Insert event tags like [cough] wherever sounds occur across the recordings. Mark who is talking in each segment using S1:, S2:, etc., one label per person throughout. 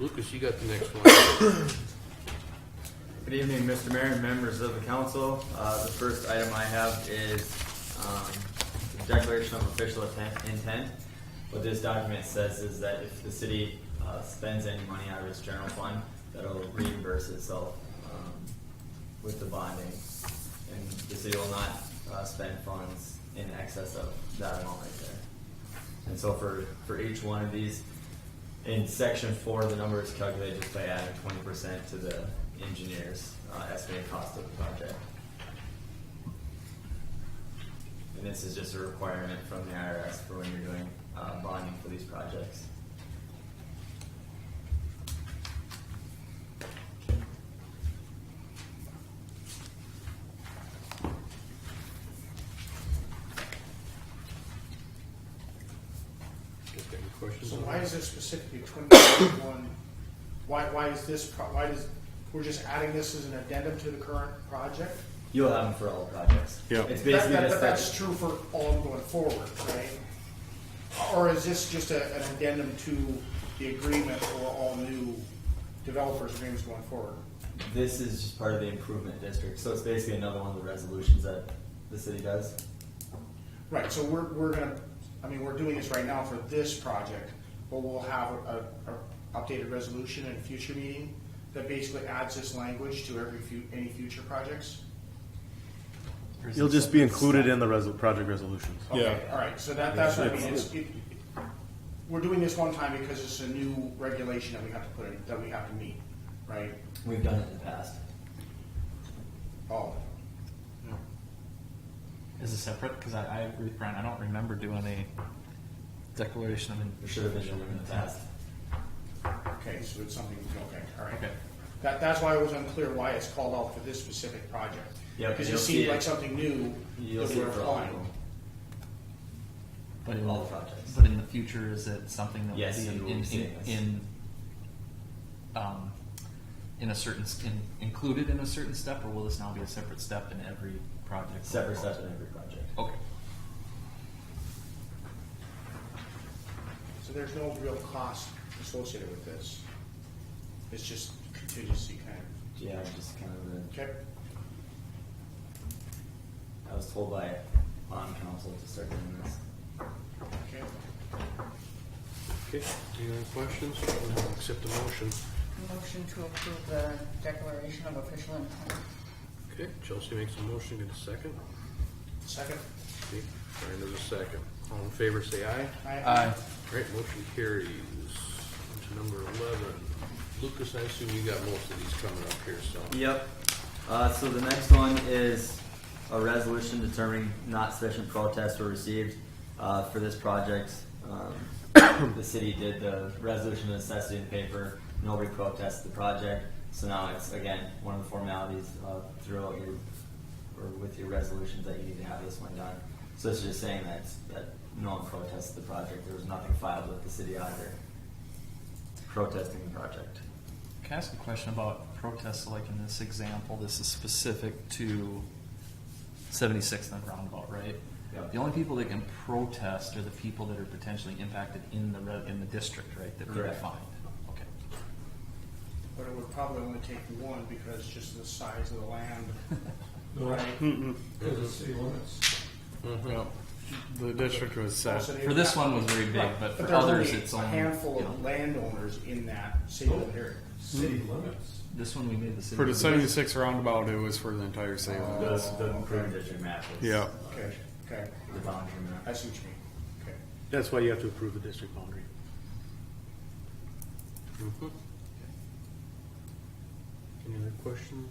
S1: Lucas, you got the next one.
S2: Good evening, Mr. Mayor and members of the council. Uh, The first item I have is um, the declaration of official atten- intent. What this document says is that if the city uh, spends any money out of its general fund, that'll reimburse itself um, with the bonding. And the city will not uh, spend funds in excess of that amount right there. And so for, for each one of these, in section four, the number is calculated just by adding twenty percent to the engineer's uh, estimated cost of the project. And this is just a requirement from the IRS for when you're doing uh, bonding for these projects.
S1: Got any questions?
S3: So
S1: on
S3: why
S1: that?
S3: is there specifically twenty twenty-one? Why, why is this, pro- why does, we're just adding this as an addendum to the current project?
S2: You'll have them for all projects.
S4: Yeah.
S2: It's
S3: That-
S2: basically
S3: that-
S2: just
S3: But that's
S2: that,
S3: true for all going forward, right? Or is this just a, an addendum to the agreement for all new developers agreements going forward?
S2: this is just part of the improvement district, so it's basically another one of the resolutions that the city does.
S3: Right, so we're, we're gonna, I mean, we're doing this right now for this project, but we'll have a, a, a updated resolution in a future meeting that basically adds this language to every few, any future projects?
S4: You'll just be included in the resol- project resolutions.
S3: Okay,
S4: Yeah.
S3: all right, so that, that's what I mean, it's, it, we're doing this one time because it's a new regulation that we have to put in, that we have to meet, right?
S2: We've done it in the past.
S3: Oh,
S5: Is it separate? Because I, I agree with Brian. I don't remember doing a declaration.
S2: There
S5: of
S2: should have been one in the past.
S3: okay, so it's something, okay, all right.
S5: Okay.
S3: That, that's why I was unclear why it's called out for this specific project.
S2: Yep,
S3: Because
S2: you'll
S3: it
S2: see
S3: seemed
S2: it.
S3: like something new
S2: You'll
S3: that
S2: see
S3: we're
S2: it for all of
S3: applying.
S2: them.
S5: but in
S2: All projects.
S5: But in the future, is it something that
S2: Yes, you
S5: will
S2: will
S5: be in,
S2: be
S5: in,
S2: seeing
S5: in,
S2: this.
S5: um, in a certain s- in, included in a certain step, or will this now be a separate step in every project?
S2: Separate steps in every project.
S5: Okay.
S3: So there's no real cost associated with this. It's just contingency kind of,
S2: Yeah, just kind of the
S3: okay?
S2: I was told by bond counsel to start doing this.
S3: Okay.
S1: Okay, any other questions? I'll Accept the motion.
S6: Motion to approve the declaration of official intent.
S1: Okay, Chelsea makes a motion, get a second.
S3: Second?
S1: Okay, Brian does a second. All in favor, say aye.
S5: Uh,
S1: All right, motion carries. On to number eleven. Lucas, I assume you got most of these coming up here, so.
S2: Yep. Uh, so the next one is a resolution determining not sufficient protests were received uh, for this project. Um, [coughs] the city did the resolution of necessity in paper. Nobody protested the project. So now it's again one of the formalities uh, throughout your or with your resolutions that you need to have this one done. So it's just saying that that no one protested the project. There was nothing filed with the city either protesting the project.
S5: can I ask a question about protests? Like in this example, this is specific to 76th and Roundabout, right?
S2: Yeah.
S5: The only people that can protest are the people that are potentially impacted in the, re- in the district, right, that they
S2: Correct.
S5: find. Okay.
S3: But it would probably only take one because just the size of the land, right?
S7: Because it's city limits.
S4: Well, the district was set.
S3: Also, they
S5: For
S3: would
S5: this
S3: have-
S5: one was very big,
S3: Right,
S5: but for
S3: there's
S5: others,
S3: only
S5: it's only,
S3: A handful
S5: you know,
S3: of landowners in that single area.
S7: City limits.
S5: [laughs] this one we made the city.
S4: For the seventy-six roundabout, it was for the entire Salem.
S2: The, the improved district map is.
S4: Yeah.
S3: Okay, okay,
S2: The boundary map.
S3: I see what you mean, okay.
S8: That's why you have to approve the district boundary.
S1: Mhm. Any other questions?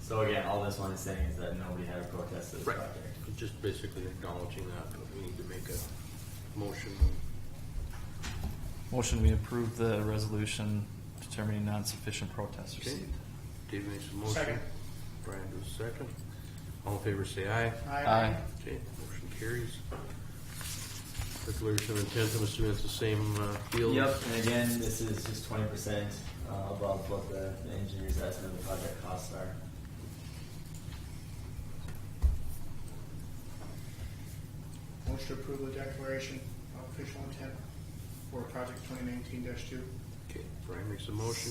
S2: So again, all this one is saying is that nobody had a protest to this
S1: Right.
S2: project.
S1: Just basically acknowledging that, but we need to make a motion.
S5: Motion, we approve the resolution determining non-sufficient protest
S1: Okay.
S5: received.
S1: Dave makes a motion.
S3: Second.
S1: Brian does a second. All in favor, say aye.
S5: Aye.
S1: Okay, motion carries. Declaration of intent, I'm assuming it's the same uh, deal?
S2: Yep, and again, this is just twenty percent uh, above what the the engineer's estimate of the project costs are.
S3: Motion to approve the declaration of official intent for project twenty nineteen two.
S1: Okay, Brian makes a motion,